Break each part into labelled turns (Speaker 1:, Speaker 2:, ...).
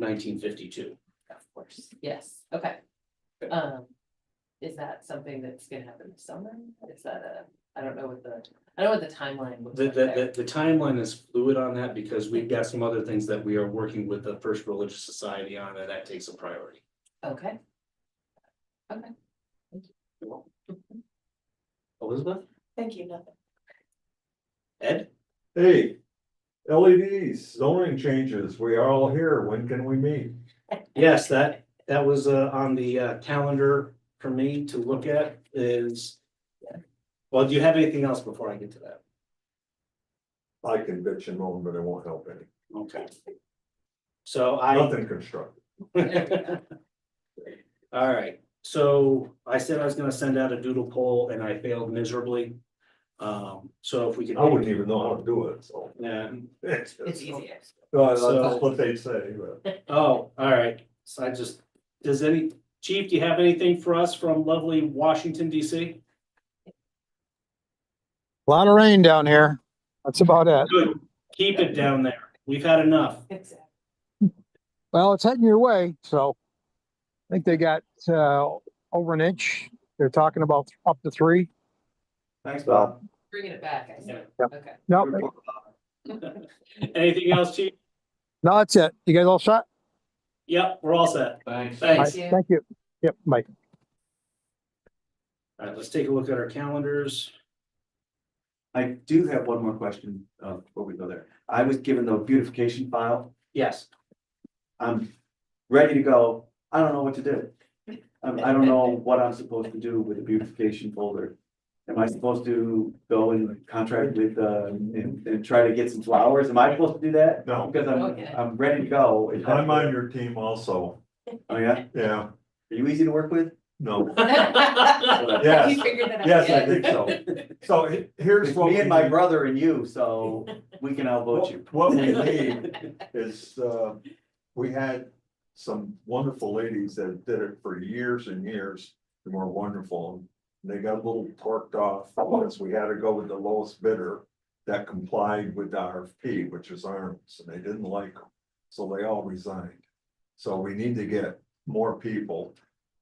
Speaker 1: nineteen fifty-two.
Speaker 2: Of course, yes, okay.
Speaker 1: Okay.
Speaker 2: Um, is that something that's gonna happen this summer? Is that a, I don't know what the, I don't know what the timeline looks
Speaker 1: The,
Speaker 2: like
Speaker 1: the,
Speaker 2: there.
Speaker 1: the, the timeline is fluid on that because we've got some other things that we are working with the First Religious Society on, and that takes a priority.
Speaker 2: Okay,
Speaker 1: Elizabeth,
Speaker 3: Thank you, nothing.
Speaker 1: Ed,
Speaker 4: Hey, LEDs, zoning changes, we are all here, when can we meet?
Speaker 1: yes, that, that was, uh, on the, uh, calendar for me to look at is. Well, do you have anything else before I get to that?
Speaker 4: I can bitch and moan, but it won't help any,
Speaker 1: Okay. So I.
Speaker 4: nothing constructive.
Speaker 2: there we go.
Speaker 1: All right, so I said I was gonna send out a doodle poll and I failed miserably. Um, so if we could.
Speaker 4: I wouldn't even know how to do it, so.
Speaker 1: Yeah,
Speaker 4: It's
Speaker 2: It's easier.
Speaker 4: No, that's
Speaker 1: So-
Speaker 4: what they say, but
Speaker 1: oh, all right, so I just, does any, chief, do you have anything for us from lovely Washington DC?
Speaker 5: Lot of rain down here. That's about it.
Speaker 1: Good, keep it down there, we've had enough.
Speaker 2: Exactly.
Speaker 5: Well, it's heading your way, so I think they got uh, over an inch. They're talking about up to three.
Speaker 1: Thanks,
Speaker 5: Bob.
Speaker 2: Bringing it back, I see,
Speaker 5: Yep.
Speaker 2: okay.
Speaker 5: No,
Speaker 1: Anything else, chief?
Speaker 5: no, that's it. You guys all set?
Speaker 1: Yep, we're all set,
Speaker 6: Thanks.
Speaker 5: All
Speaker 1: thanks.
Speaker 5: right, Thank you. Yep, Mike.
Speaker 1: All right, let's take a look at our calendars.
Speaker 6: I do have one more question, uh, before we go there. I was given the beautification file.
Speaker 1: Yes,
Speaker 6: I'm ready to go. I don't know what to do. Um, I don't know what I'm supposed to do with the beautification folder. Am I supposed to go and contract with, uh, and, and try to get some flowers? Am I supposed to do that?
Speaker 4: no,
Speaker 6: Because
Speaker 2: Okay.
Speaker 6: I'm, I'm ready to go.
Speaker 4: I'm on your team also,
Speaker 6: Oh, yeah? Are
Speaker 4: yeah,
Speaker 6: you easy to work with?
Speaker 4: no,
Speaker 2: Have
Speaker 4: yes,
Speaker 2: You figured that out
Speaker 4: yes, I
Speaker 2: yet?
Speaker 4: think so. So he- here's
Speaker 6: It's
Speaker 4: what.
Speaker 6: me and
Speaker 4: we
Speaker 6: my
Speaker 4: need.
Speaker 6: brother and you, so we can outvote you.
Speaker 4: What what we need is, uh, we had some wonderful ladies that did it for years and years, and were wonderful. and They got a little torqued off once we had to go with the lowest bidder that complied with the RFP, which was Arnold's, and they didn't like them. So they all resigned. So we need to get more people,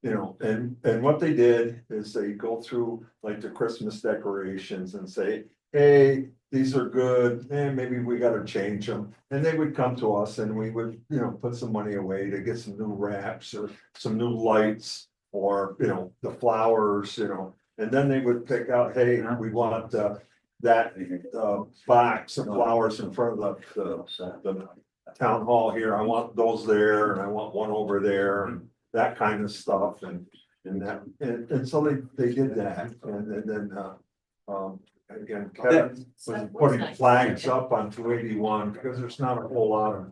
Speaker 4: you know, and, and what they did is they go through like the Christmas decorations and say, hey, these are good, and maybe we gotta change them. And they would come to us and we would, you know, put some money away to get some new wraps or some new lights. Or, you know, the flowers, you know, and then they would pick out, hey, we want uh that uh box of flowers in front of the the. The town hall here, I want those there and I want one over there and that kind of stuff and. And that, and and so they they did that and then- then uh um again, Kevin was putting flags up on two eighty-one, because there's not a whole lot of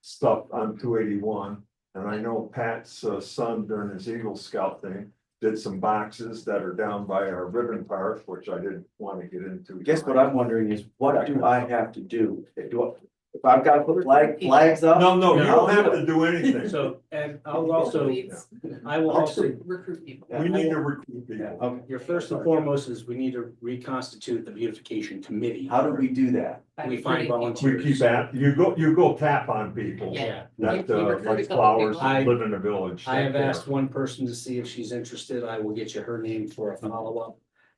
Speaker 4: stuff on two eighty-one. And I know Pat's uh, son during his Eagle Scout thing, did some boxes that are down by our ribbon park, which I didn't want to get into.
Speaker 6: Guess what I'm wondering is, what do I have to do? Do I, if I've got to put flag, flags up?
Speaker 4: No, no, you don't have to do anything.
Speaker 1: so, and I'll also,
Speaker 2: Please
Speaker 1: I will also,
Speaker 2: Recruit people.
Speaker 4: We need to recruit people.
Speaker 6: Okay,
Speaker 1: your first and foremost is we need to reconstitute the beautification committee.
Speaker 6: how do we do that?
Speaker 2: By
Speaker 1: We find
Speaker 2: recruiting people.
Speaker 1: volunteers.
Speaker 4: We keep at, you go, you go tap on people
Speaker 2: Yeah.
Speaker 4: that
Speaker 2: We- we
Speaker 4: uh,
Speaker 2: recruit a
Speaker 4: like
Speaker 2: couple
Speaker 4: flowers,
Speaker 2: people.
Speaker 1: I-
Speaker 4: live in a village.
Speaker 1: I have
Speaker 4: that, uh,
Speaker 1: asked one person to see if she's interested. I will get you her name for a follow-up.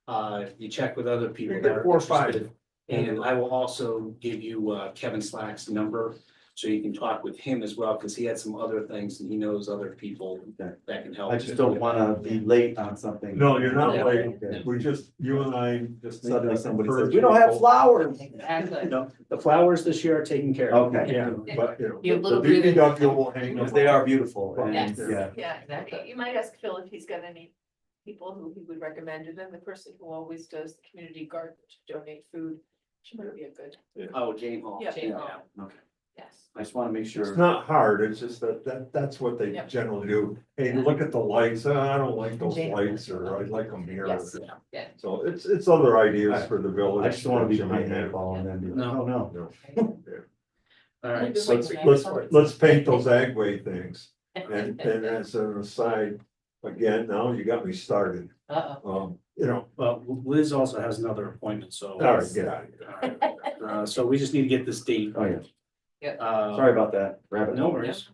Speaker 1: Uh, you check with other people.
Speaker 4: You
Speaker 1: that
Speaker 4: get
Speaker 1: are
Speaker 4: four or five.
Speaker 1: interested, And I will also give you uh, Kevin Slack's number, so you can talk with him as well, because he had some other things and he knows other people
Speaker 6: Okay.
Speaker 1: that can help.
Speaker 6: I just don't wanna be late on something.
Speaker 4: No, you're not
Speaker 2: Yeah.
Speaker 4: late.
Speaker 6: Okay.
Speaker 4: We just, you and I just
Speaker 6: Suddenly somebody says,
Speaker 4: encourage
Speaker 6: we don't have
Speaker 4: people."
Speaker 6: flowers.
Speaker 2: Exactly.
Speaker 6: No,
Speaker 1: The flowers this year are taken care of.
Speaker 6: Okay.
Speaker 4: Yeah, but you
Speaker 2: You have
Speaker 4: know,
Speaker 2: little
Speaker 4: the
Speaker 2: breathing
Speaker 4: DPW will hang
Speaker 6: Because
Speaker 4: them.
Speaker 6: they
Speaker 4: up.
Speaker 6: are beautiful and,
Speaker 2: Yes.
Speaker 6: yeah.
Speaker 3: Yeah,
Speaker 2: Exactly.
Speaker 3: you might ask Phil if he's got any people who he would recommend, and then the person who always does the community garden to donate food, she might be a good,
Speaker 1: Oh, Jane Hall.
Speaker 3: Yeah.
Speaker 2: Jane
Speaker 6: Yeah.
Speaker 2: Hall.
Speaker 6: Okay,
Speaker 3: yes.
Speaker 6: I just wanna make
Speaker 4: It's
Speaker 6: sure.
Speaker 4: not hard, it's just that, that, that's what they
Speaker 3: Yep.
Speaker 4: generally do. Hey, look at the lights, "Uh, I don't like those
Speaker 2: Jane.
Speaker 4: lights, or I like them here.
Speaker 3: Yes.
Speaker 2: Yeah.
Speaker 4: So it's, it's other ideas for the village.
Speaker 6: I just don't wanna be
Speaker 4: that you
Speaker 6: behind
Speaker 4: may
Speaker 6: that
Speaker 4: have.
Speaker 6: ball and then be like,
Speaker 1: No.
Speaker 6: oh, no.
Speaker 4: No.
Speaker 1: All right,
Speaker 3: Just
Speaker 1: so
Speaker 3: like
Speaker 4: Let's,
Speaker 3: tonight.
Speaker 4: let's, let's paint those agway things. And, and as an aside, again, now you got me started.
Speaker 2: Uh-oh.
Speaker 4: Um, you know,
Speaker 1: well, Liz also has another appointment, so.
Speaker 4: all right, get out of here.
Speaker 1: All right. Uh, So we just need to get this date.
Speaker 6: Oh, yeah,
Speaker 1: Uh,
Speaker 6: sorry about that. Rabbit.
Speaker 1: No worries.